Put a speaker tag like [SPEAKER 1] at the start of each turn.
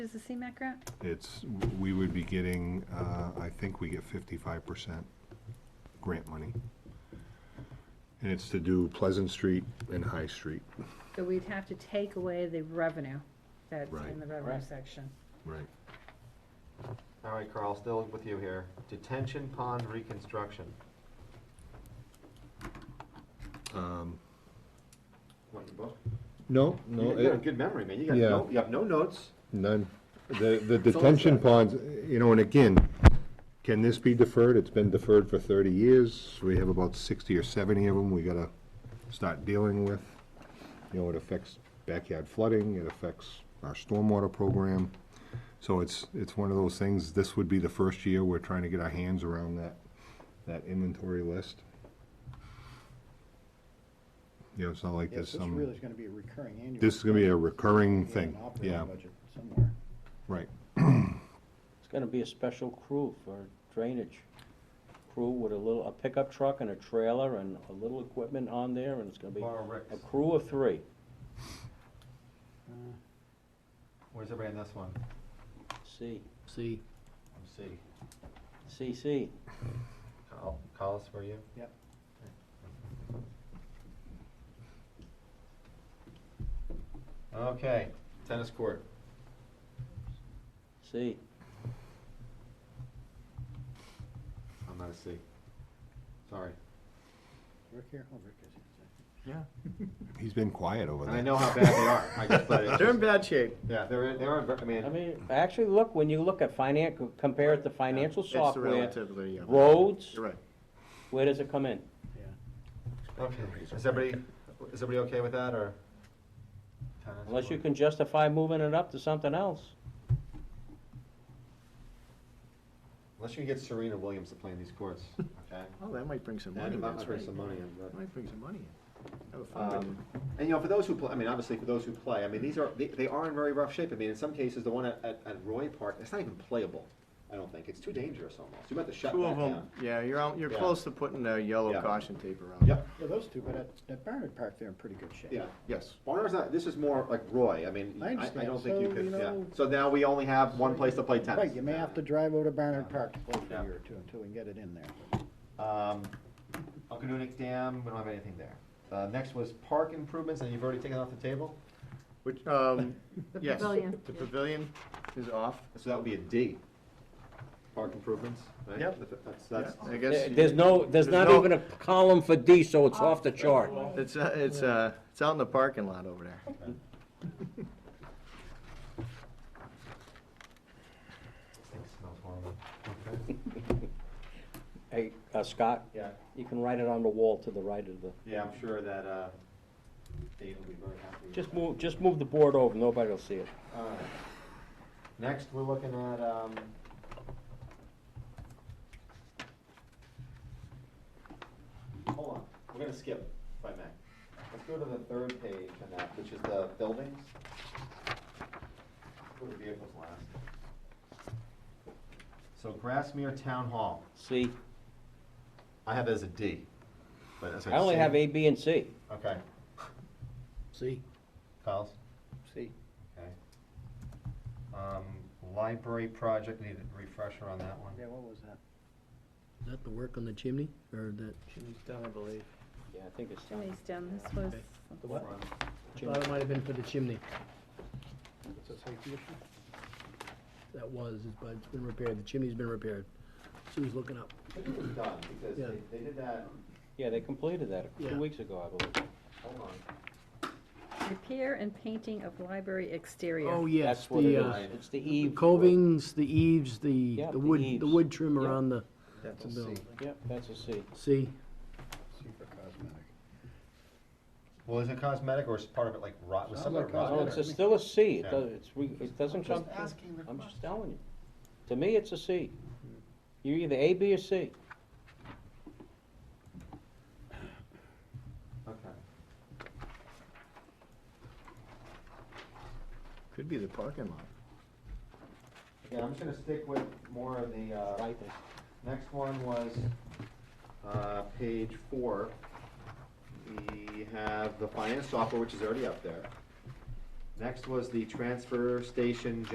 [SPEAKER 1] is the CMAC grant?
[SPEAKER 2] It's, we would be getting, uh, I think we get fifty-five percent grant money. And it's to do Pleasant Street and High Street.
[SPEAKER 1] So we'd have to take away the revenue that's
[SPEAKER 2] Right.
[SPEAKER 1] in the revenue
[SPEAKER 3] Right.
[SPEAKER 1] section.
[SPEAKER 2] Right.
[SPEAKER 4] All right, Carl, still with you here. Detention pond reconstruction.
[SPEAKER 2] Um,
[SPEAKER 4] What, your book?
[SPEAKER 2] no,
[SPEAKER 4] You
[SPEAKER 2] no,
[SPEAKER 4] you got a
[SPEAKER 2] it-
[SPEAKER 4] good memory, man. You got
[SPEAKER 2] Yeah.
[SPEAKER 4] no, you have no notes.
[SPEAKER 2] none. The, the
[SPEAKER 4] It's all
[SPEAKER 2] detention
[SPEAKER 4] set.
[SPEAKER 2] ponds, you know, and again, can this be deferred? It's been deferred for thirty years. We have about sixty or seventy of them we gotta start dealing with. You know, it affects backyard flooding, it affects our stormwater program. So it's, it's one of those things, this would be the first year we're trying to get our hands around that, that inventory list. You know, it's not like
[SPEAKER 5] Yes,
[SPEAKER 2] there's
[SPEAKER 5] this really
[SPEAKER 2] some,
[SPEAKER 5] is gonna be a recurring annual.
[SPEAKER 2] this is gonna be a recurring
[SPEAKER 5] We have an
[SPEAKER 2] thing,
[SPEAKER 5] operating
[SPEAKER 2] yeah,
[SPEAKER 5] budget Somewhere.
[SPEAKER 2] right.
[SPEAKER 3] It's gonna be a special crew for drainage. Crew with a little, a pickup truck and a trailer and a little equipment on there, and it's gonna be
[SPEAKER 4] Laura
[SPEAKER 3] a
[SPEAKER 4] Ricks,
[SPEAKER 3] crew of three.
[SPEAKER 4] where's everybody on this one?
[SPEAKER 3] C,
[SPEAKER 6] See,
[SPEAKER 4] I'm C.
[SPEAKER 3] C, C.
[SPEAKER 4] Col- Collis, were you?
[SPEAKER 5] Yep.
[SPEAKER 4] Okay, tennis court.
[SPEAKER 3] C.
[SPEAKER 4] I'm not a C. Sorry.
[SPEAKER 5] Rick here, oh, Rick is.
[SPEAKER 2] He's been quiet over
[SPEAKER 4] And
[SPEAKER 2] there.
[SPEAKER 4] I know how bad they are. I just, but it's
[SPEAKER 7] They're in
[SPEAKER 4] just,
[SPEAKER 7] bad shape.
[SPEAKER 4] yeah, they're, they're, in- I
[SPEAKER 3] I
[SPEAKER 4] mean,
[SPEAKER 3] mean, actually, look, when you look at finance, compare it to financial
[SPEAKER 7] It's
[SPEAKER 3] software,
[SPEAKER 7] relatively, yeah.
[SPEAKER 3] roads,
[SPEAKER 7] You're right.
[SPEAKER 3] where does it come in?
[SPEAKER 4] okay. Is everybody, is everybody okay with that or? Tennis
[SPEAKER 3] Unless you
[SPEAKER 4] court.
[SPEAKER 3] can justify moving it up to something else.
[SPEAKER 4] Unless you can get Serena Williams to play in these courts, okay?
[SPEAKER 7] Oh, that might bring some
[SPEAKER 4] Yeah,
[SPEAKER 7] money. in.
[SPEAKER 4] that might bring some money in, but-
[SPEAKER 7] That Might bring some money in. Have a fun with
[SPEAKER 4] Um,
[SPEAKER 7] it.
[SPEAKER 4] And, you know, for those who play, I mean, obviously, for those who play, I mean, these are, they, they are in very rough shape. I mean, in some cases, the one at, at, at Roy Park, it's not even playable, I don't think. It's too dangerous almost. You might have to shut
[SPEAKER 7] Two
[SPEAKER 4] that
[SPEAKER 7] of
[SPEAKER 4] down.
[SPEAKER 7] them, yeah, you're, al- you're
[SPEAKER 4] Yeah.
[SPEAKER 7] close to putting a yellow
[SPEAKER 4] Yeah.
[SPEAKER 7] caution tape around.
[SPEAKER 4] Yep,
[SPEAKER 5] Yeah, those two, but at, at Barnard Park, they're in pretty good shape.
[SPEAKER 4] yeah.
[SPEAKER 7] Yes.
[SPEAKER 4] Barnard's not, this is more like Roy. I mean,
[SPEAKER 5] I
[SPEAKER 4] I, I
[SPEAKER 5] understand.
[SPEAKER 4] don't think you
[SPEAKER 5] So,
[SPEAKER 4] could,
[SPEAKER 5] you
[SPEAKER 4] yeah.
[SPEAKER 5] know-
[SPEAKER 4] So now we only have one place to play tennis.
[SPEAKER 5] Right, you may have to drive over to Barnard
[SPEAKER 2] Uh-huh.
[SPEAKER 4] Yeah.
[SPEAKER 5] Park to play for
[SPEAKER 4] Yeah.
[SPEAKER 5] a year or two until we can get it in there.
[SPEAKER 4] Um, Okanoonic Dam, we don't have anything there. Uh, next was park improvements, and you've already taken it off the table?
[SPEAKER 7] Which, um, yes.
[SPEAKER 1] pavilion.
[SPEAKER 7] The pavilion is off.
[SPEAKER 4] So that would be a D. Park improvements, right?
[SPEAKER 7] Yep.
[SPEAKER 4] That's,
[SPEAKER 7] Yeah,
[SPEAKER 4] that's,
[SPEAKER 7] I guess.
[SPEAKER 3] There- There's no, there's not even a column for D, so it's off the chart.
[SPEAKER 4] Oh.
[SPEAKER 7] It's, uh, it's, uh, it's out in the parking lot over there.
[SPEAKER 4] this thing smells horrible.
[SPEAKER 3] Hey, uh, Scott,
[SPEAKER 4] Yeah,
[SPEAKER 3] you can write it on the wall to the right of the,
[SPEAKER 4] yeah, I'm sure that, uh, Dave will be very happy. with
[SPEAKER 3] just
[SPEAKER 4] that.
[SPEAKER 3] move, just move the board over, nobody will see it.
[SPEAKER 4] All right. Next, we're looking at, um, hold on, we're gonna skip, if I may. Let's go to the third page on that, which is the buildings. Go to vehicles last. So Grassmere Town Hall,
[SPEAKER 3] C.
[SPEAKER 4] I have it as a D, but as I
[SPEAKER 3] I only
[SPEAKER 4] see-
[SPEAKER 3] have A, B, and C.
[SPEAKER 4] Okay,
[SPEAKER 6] see,
[SPEAKER 4] Kyle's?
[SPEAKER 7] See?
[SPEAKER 4] Okay. Um, library project, need a refresher on that one.
[SPEAKER 5] Yeah, what was that?
[SPEAKER 6] is that the work on the chimney, or that,
[SPEAKER 7] Jimmy's done, I believe.
[SPEAKER 3] Yeah, I think it's
[SPEAKER 1] Jimmy's down, this was,
[SPEAKER 6] the what?
[SPEAKER 4] Front.
[SPEAKER 6] I thought it might have been for the chimney,
[SPEAKER 5] It's a safety issue?
[SPEAKER 6] that was, but it's been repaired, the chimney's been repaired. Sue's looking up.
[SPEAKER 4] I think it was done, because
[SPEAKER 6] Yeah.
[SPEAKER 4] they, they did that,
[SPEAKER 3] Yeah, they completed that
[SPEAKER 6] Yeah.
[SPEAKER 3] two weeks ago, I believe.
[SPEAKER 4] hold on.
[SPEAKER 1] repair and painting of library exterior.
[SPEAKER 6] Oh, yes,
[SPEAKER 3] That's what it
[SPEAKER 6] the, uh,
[SPEAKER 3] is. It's the E
[SPEAKER 6] the
[SPEAKER 3] eve.
[SPEAKER 6] covings, the eaves, the,
[SPEAKER 3] Yeah,
[SPEAKER 6] the
[SPEAKER 3] the
[SPEAKER 6] wood, the
[SPEAKER 3] eaves.
[SPEAKER 6] wood trim
[SPEAKER 3] Yeah.
[SPEAKER 6] around the,
[SPEAKER 7] That's
[SPEAKER 6] a
[SPEAKER 7] a
[SPEAKER 6] bill.
[SPEAKER 7] C.
[SPEAKER 3] Yep, that's a C.
[SPEAKER 6] see,
[SPEAKER 5] Super cosmetic.
[SPEAKER 4] Well, is it cosmetic, or is part of it like rot, was
[SPEAKER 5] Sounds
[SPEAKER 4] some of it
[SPEAKER 5] like
[SPEAKER 3] No,
[SPEAKER 6] Oh,
[SPEAKER 4] rot?
[SPEAKER 3] it's a- still a C. It
[SPEAKER 4] Yeah.
[SPEAKER 3] does- It's, re- it doesn't come,
[SPEAKER 4] Just asking the
[SPEAKER 3] I'm
[SPEAKER 4] question.
[SPEAKER 3] just telling you. To me, it's a C. You're either A, B, or C.
[SPEAKER 4] Okay.
[SPEAKER 7] Could be the parking lot.
[SPEAKER 4] Again, I'm just gonna stick with more of the, uh,
[SPEAKER 3] Right there.
[SPEAKER 4] next one was, uh, page four. We have the finance software, which is already up there. Next was the transfer station